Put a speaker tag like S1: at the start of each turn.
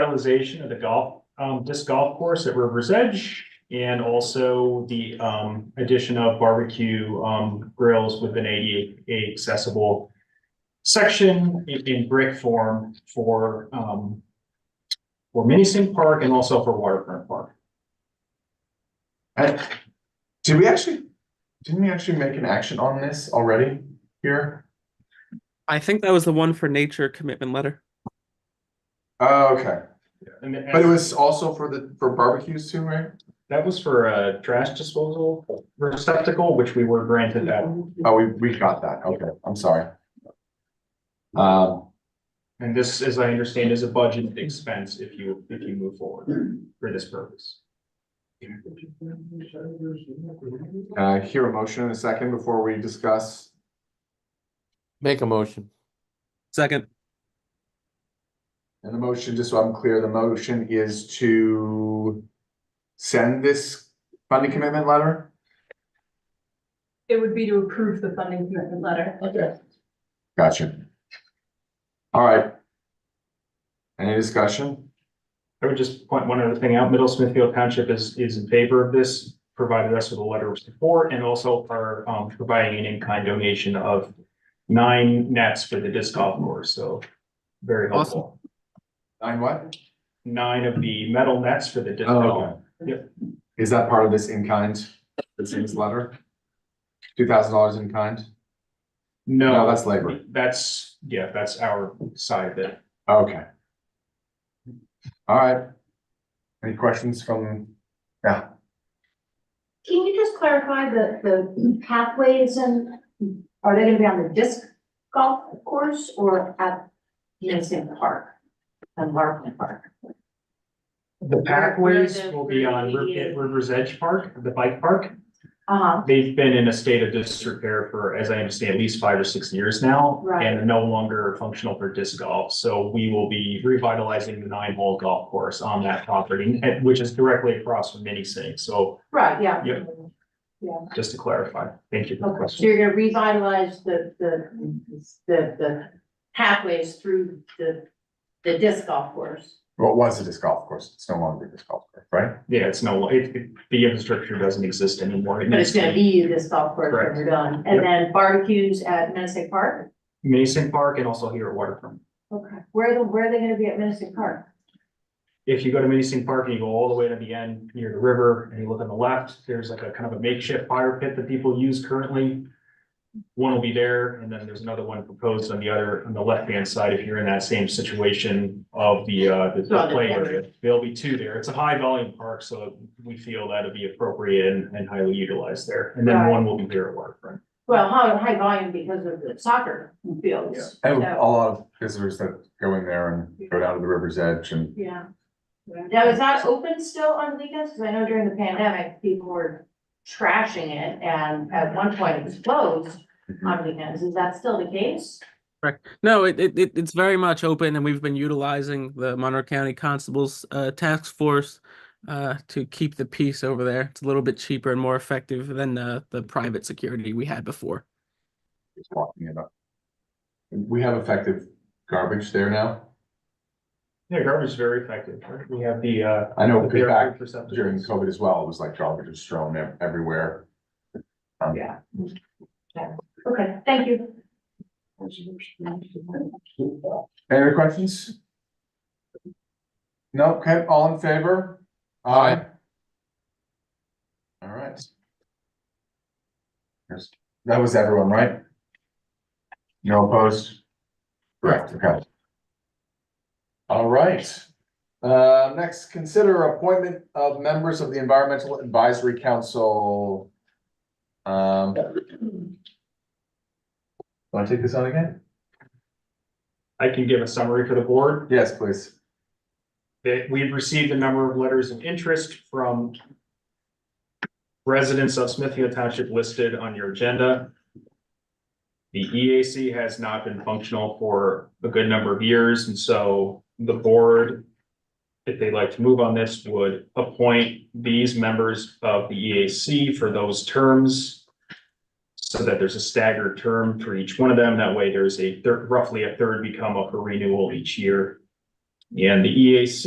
S1: revitalization of the golf, um, disc golf course at River's Edge. And also the, um, addition of barbecue, um, grills with an ADA accessible section in, in brick form for, um, for Minisink Park and also for Waterfront Park.
S2: I- Did we actually, didn't we actually make an action on this already here?
S3: I think that was the one for nature commitment letter.
S2: Oh, okay,
S1: And then-
S2: but it was also for the, for barbecues too, right?
S1: that was for a trash disposal receptacle, which we were granted that.
S2: Oh, we, we got that, okay, I'm sorry. Um,
S1: And this, as I understand, is a budget expense if you, if you move forward for this purpose.
S2: can I hear a motion in a second before we discuss.
S4: Make a motion.
S3: Second,
S2: And the motion, just so I'm clear, the motion is to send this funding commitment letter?
S5: It would be to approve the funding commitment letter.
S2: Okay. Gotcha. All right. Any discussion?
S1: I would just point one other thing out. Middle Smithfield Township is, is in favor of this, provided us with a letter of support and also are, um, providing an in-kind donation of nine nets for the disc golf course, so very helpful.
S2: Nine what?
S1: Nine of the metal nets for the disc
S2: Oh,
S1: golf. Yep.
S2: Is that part of this in kind, this in this letter? Two thousand dollars in kind? No,
S1: No,
S2: that's labor.
S1: that's, yeah, that's our side of it.
S2: Okay. All right. Any questions from, yeah,
S6: Can you just clarify the, the pathways and are they gonna be on the disc golf course or at Mason Park? And Larkin Park?
S1: The pathways will be on Ri- at River's Edge Park, the bike park.
S6: Uh,
S1: They've been in a state of disrepair for, as I understand, at least five or six years now.
S6: Right.
S1: And are no longer functional for disc golf. So we will be revitalizing the nine hole golf course on that property, and- which is directly across from Mini Sink. So
S6: right, yeah.
S1: Yep. just to clarify, thank you for the
S6: Okay, so
S1: question.
S6: you're gonna revitalize the, the, the, the pathways through the, the disc golf course.
S2: what was a disc golf course? It's no longer a disc golf course, right?
S1: Yeah, it's no, it, it- the infrastructure doesn't exist anymore. It
S6: But it's
S1: needs to
S6: gonna be the disc golf course
S1: Correct.
S6: when you're done. And
S1: Yep.
S6: then barbecues at Mason Park?
S1: be Mini Sink Park and also here at Waterfront.
S6: Okay. Where, the- where are they gonna be at Mason Park?
S1: If you go to Minisink Park and you go all the way to the end near the river and you look on the left, there's like a kind of a makeshift fire pit that people use currently. One will be there and then there's another one proposed on the other, on the left-hand side, if you're in that same situation of the, uh, the- the play area. There'll be two there. It's a high volume park, so we feel that'd be appropriate and, and highly utilized there. And then
S6: Right.
S1: one will be here at waterfront.
S6: Well, high, high volume because of the soccer fields.
S2: And
S6: So-
S2: a lot of visitors that go in there and go down to the river's edge and
S6: Yeah. Now, is that open still on weekends? Cause I know during the pandemic, people were trashing it and at one point it was closed on weekends. Is that still the case?
S3: no, it, it, it it's very much open, and we've been utilizing the Monroe County Constable's uh, task force uh, to keep the peace over there. It's a little bit cheaper and more effective than uh, the private security we had before.
S2: just walking it up. We have effective garbage there now.
S1: Yeah, garbage is very effective. right? We have the, uh.
S2: I know,
S1: the
S2: because back
S1: barrier receptacles.
S2: during COVID as well, it was like garbage was thrown ev- everywhere. Um,
S6: Yeah. Okay, thank you.
S2: Any other questions? No, okay, all in favor? Aye. All right. Yes, That was everyone, right? No opposed? Correct, okay. All right. Uh, next, consider appointment of members of the Environmental Advisory Council. Um. Want to take this on again?
S1: I can give a summary for the board.
S2: Yes, please.
S1: that we've received a number of letters of interest from residents of Smithfield Township listed on your agenda. The EAC has not been functional for a good number of years, and so the board, if they'd like to move on this, would appoint these members of the EAC for those terms so that there's a staggered term for each one of them. That way, there's a, thir- roughly a third become up for renewal each year. And the EAC